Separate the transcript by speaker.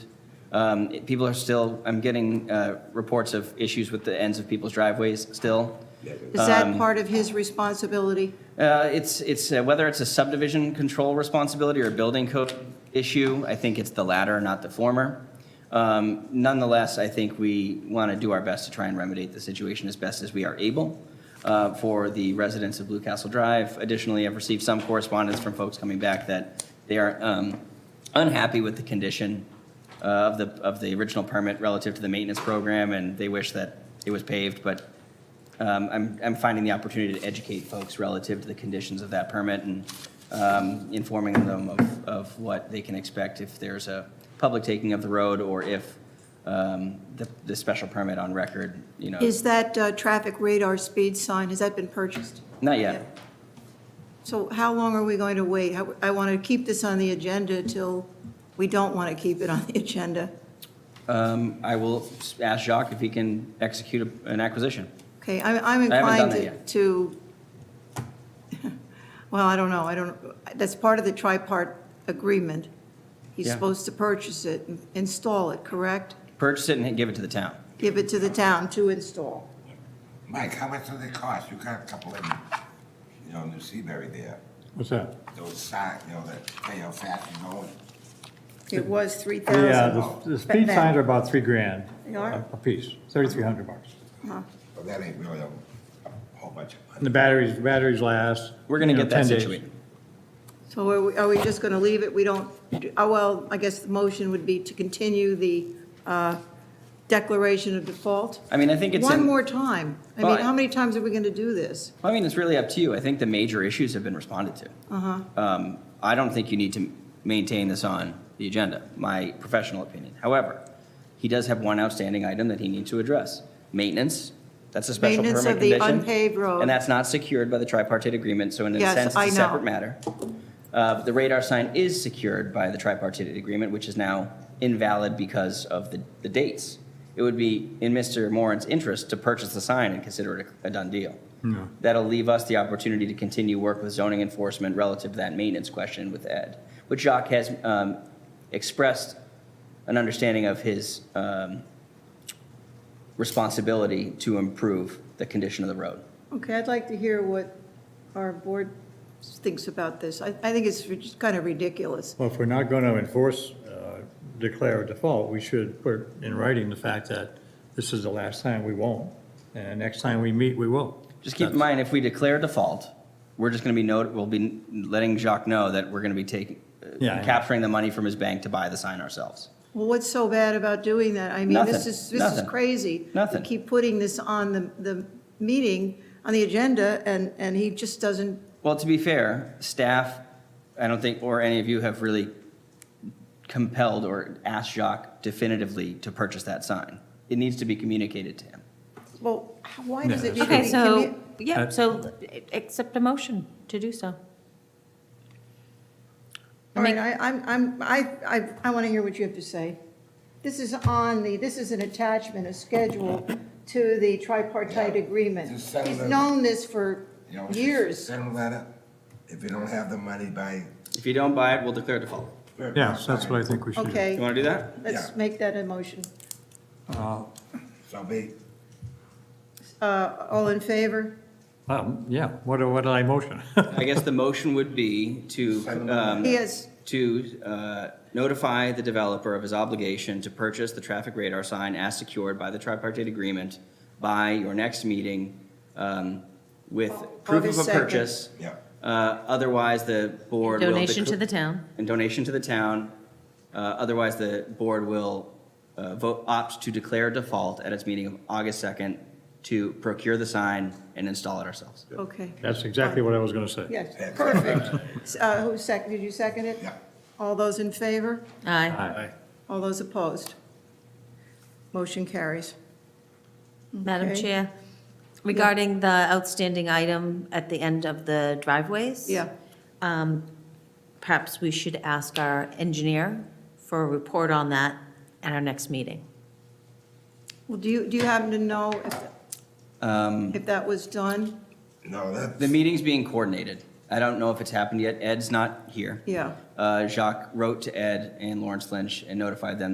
Speaker 1: Um, it- People are still, I'm getting uh, reports of issues with the ends of people's driveways still.
Speaker 2: Is
Speaker 1: Um,
Speaker 2: that part of his responsibility?
Speaker 1: Uh, It's, it's, uh, whether it's a subdivision control responsibility or a building code issue, I think it's the latter, not the former. Um, Nonetheless, I think we want to do our best to try and remediate the situation as best as we are able uh, for the residents of Blue Castle Drive. Additionally, I've received some correspondence from folks coming back that they are um, unhappy with the condition uh, of the, of the original permit relative to the maintenance program, and they wish that it was paved, but um, I'm, I'm finding the opportunity to educate folks relative to the conditions of that permit and um, informing them of, of what they can expect if there's a public taking of the road or if um, the, the special permit on record, you know.
Speaker 2: Is that uh, traffic radar speed sign, has that been purchased?
Speaker 1: Not yet.
Speaker 2: So how long are we going to wait? How- I want to keep this on the agenda till, we don't want to keep it on the agenda.
Speaker 1: Um, I will ask Jacques if he can execute a- an acquisition.
Speaker 2: Okay, I'm I'm
Speaker 1: I haven't done
Speaker 2: inclined
Speaker 1: that
Speaker 2: to-
Speaker 1: yet.
Speaker 2: to, well, I don't know, I don't, that's part of the tripart agreement. He's
Speaker 1: Yeah.
Speaker 2: supposed to purchase it, and install it, correct?
Speaker 1: Purchase it and give it to the town.
Speaker 2: Give it to the town to install.
Speaker 3: Mike, how much do they cost? You got a couple in, you know, New Seabury there,
Speaker 4: What's that?
Speaker 3: those signs, you know, that tell you how fast you're going.
Speaker 2: It was 3,000.
Speaker 4: Yeah, the- the speed
Speaker 2: That-
Speaker 4: signs are about three grand.
Speaker 2: They are?
Speaker 4: a- A piece, thirty-three hundred bucks.
Speaker 3: But that ain't really a, a whole bunch of
Speaker 4: And the
Speaker 3: money.
Speaker 4: batteries, batteries last.
Speaker 1: We're going to
Speaker 4: you know,
Speaker 1: get that
Speaker 4: 10 days.
Speaker 1: situated.
Speaker 2: So are we, are we just going to leave it? We don't, oh, well, I guess the motion would be to continue the uh, declaration of default?
Speaker 1: I mean, I think it's
Speaker 2: One
Speaker 1: in-
Speaker 2: more time. I mean,
Speaker 1: Well, I-
Speaker 2: how many times are we going to do this?
Speaker 1: Well, I mean, it's really up to you. I think the major issues have been responded to.
Speaker 2: Uh-huh.
Speaker 1: Um, I don't think you need to maintain this on the agenda, my professional opinion. However, he does have one outstanding item that he needs to address. Maintenance, that's a special permit
Speaker 2: Maintenance
Speaker 1: condition.
Speaker 2: of the unpaved road.
Speaker 1: And that's not secured by the tripartite agreement, so in a
Speaker 2: Yes,
Speaker 1: sense,
Speaker 2: I
Speaker 1: it's a
Speaker 2: know.
Speaker 1: separate matter. Uh, The radar sign is secured by the tripartite agreement, which is now invalid because of the, the dates. It would be in Mr. Moran's interest to purchase the sign and consider it a done deal. That'll leave us the opportunity to continue work with zoning enforcement relative to that maintenance question with Ed, which Jacques has um, expressed an understanding of his um, responsibility to improve the condition of the road.
Speaker 2: Okay, I'd like to hear what our board thinks about this. I, I think it's just kind of ridiculous.
Speaker 4: Well, if we're not going to enforce, uh, declare a default, we should put in writing the fact that this is the last time we won't, and next time we meet, we will.
Speaker 1: Just keep in mind, if we declare default, we're just going to be note, we'll be letting Jacques know that we're going to be taking, uh,
Speaker 4: Yeah, yeah.
Speaker 1: capturing the money from his bank to buy the sign ourselves.
Speaker 2: Well, what's so bad about doing that? I mean, this
Speaker 1: Nothing,
Speaker 2: is, this is
Speaker 1: nothing,
Speaker 2: crazy.
Speaker 1: nothing.
Speaker 2: We keep putting this on the, the meeting, on the agenda, and, and he just doesn't
Speaker 1: Well, to be fair, staff, I don't think, or any of you have really compelled or asked Jacques definitively to purchase that sign. It needs to be communicated to him.
Speaker 2: Well, h- why does it need to be?
Speaker 5: Okay, so,
Speaker 2: commu-
Speaker 5: yeah,
Speaker 4: Uh,
Speaker 5: so a- accept a motion to do so.
Speaker 2: All right, I, I'm, I'm, I, I, I want to hear what you have to say. This is on the, this is an attachment, a schedule to the tripartite
Speaker 3: Yeah,
Speaker 2: agreement.
Speaker 3: just send
Speaker 2: He's
Speaker 3: them-
Speaker 2: known this for
Speaker 3: You know, just
Speaker 2: years.
Speaker 3: Send a letter, if you don't have the money by.
Speaker 1: If you don't buy it, we'll declare default.
Speaker 4: Yes, that's what I think we should do.
Speaker 1: You
Speaker 2: Okay,
Speaker 1: want to do that?
Speaker 2: let's
Speaker 3: Yeah.
Speaker 2: make that a motion.
Speaker 3: So be,
Speaker 2: Uh, all in favor?
Speaker 4: Um, yeah, what, do- what did I motion?
Speaker 1: I guess the motion would be to, um,
Speaker 2: He has,
Speaker 1: to uh, notify the developer of his obligation to purchase the traffic radar sign as secured by the tripartite agreement by your next meeting um, with proof of
Speaker 2: August
Speaker 1: a
Speaker 2: 2nd.
Speaker 1: purchase.
Speaker 3: yeah.
Speaker 1: Uh, Otherwise, the board will.
Speaker 5: Donation to
Speaker 1: decl-
Speaker 5: the town.
Speaker 1: And donation to the town. Uh, Otherwise, the board will uh, vote, opt to declare default at its meeting of August 2nd to procure the sign and install it ourselves.
Speaker 2: okay,
Speaker 4: That's exactly what I was going to say.
Speaker 2: yes,
Speaker 3: That's-
Speaker 2: perfect. S- Uh, who seconded, did you second it?
Speaker 3: Yeah.
Speaker 2: All those in favor?
Speaker 5: Aye.
Speaker 4: Aye.
Speaker 2: All those opposed? Motion carries.
Speaker 5: Madam
Speaker 2: Okay.
Speaker 5: Chair, regarding the outstanding item at the end of the driveways.
Speaker 2: Yeah,
Speaker 5: Perhaps we should ask our engineer for a report on that at our next meeting.
Speaker 2: well, do you, do you happen to know if
Speaker 1: Um,
Speaker 2: If that was done,
Speaker 3: No,
Speaker 1: The
Speaker 3: that's,
Speaker 1: meeting's being coordinated. I don't know if it's happened yet. Ed's not here.
Speaker 2: yeah.
Speaker 1: Uh, Jacques wrote to Ed and Lawrence Lynch and notified them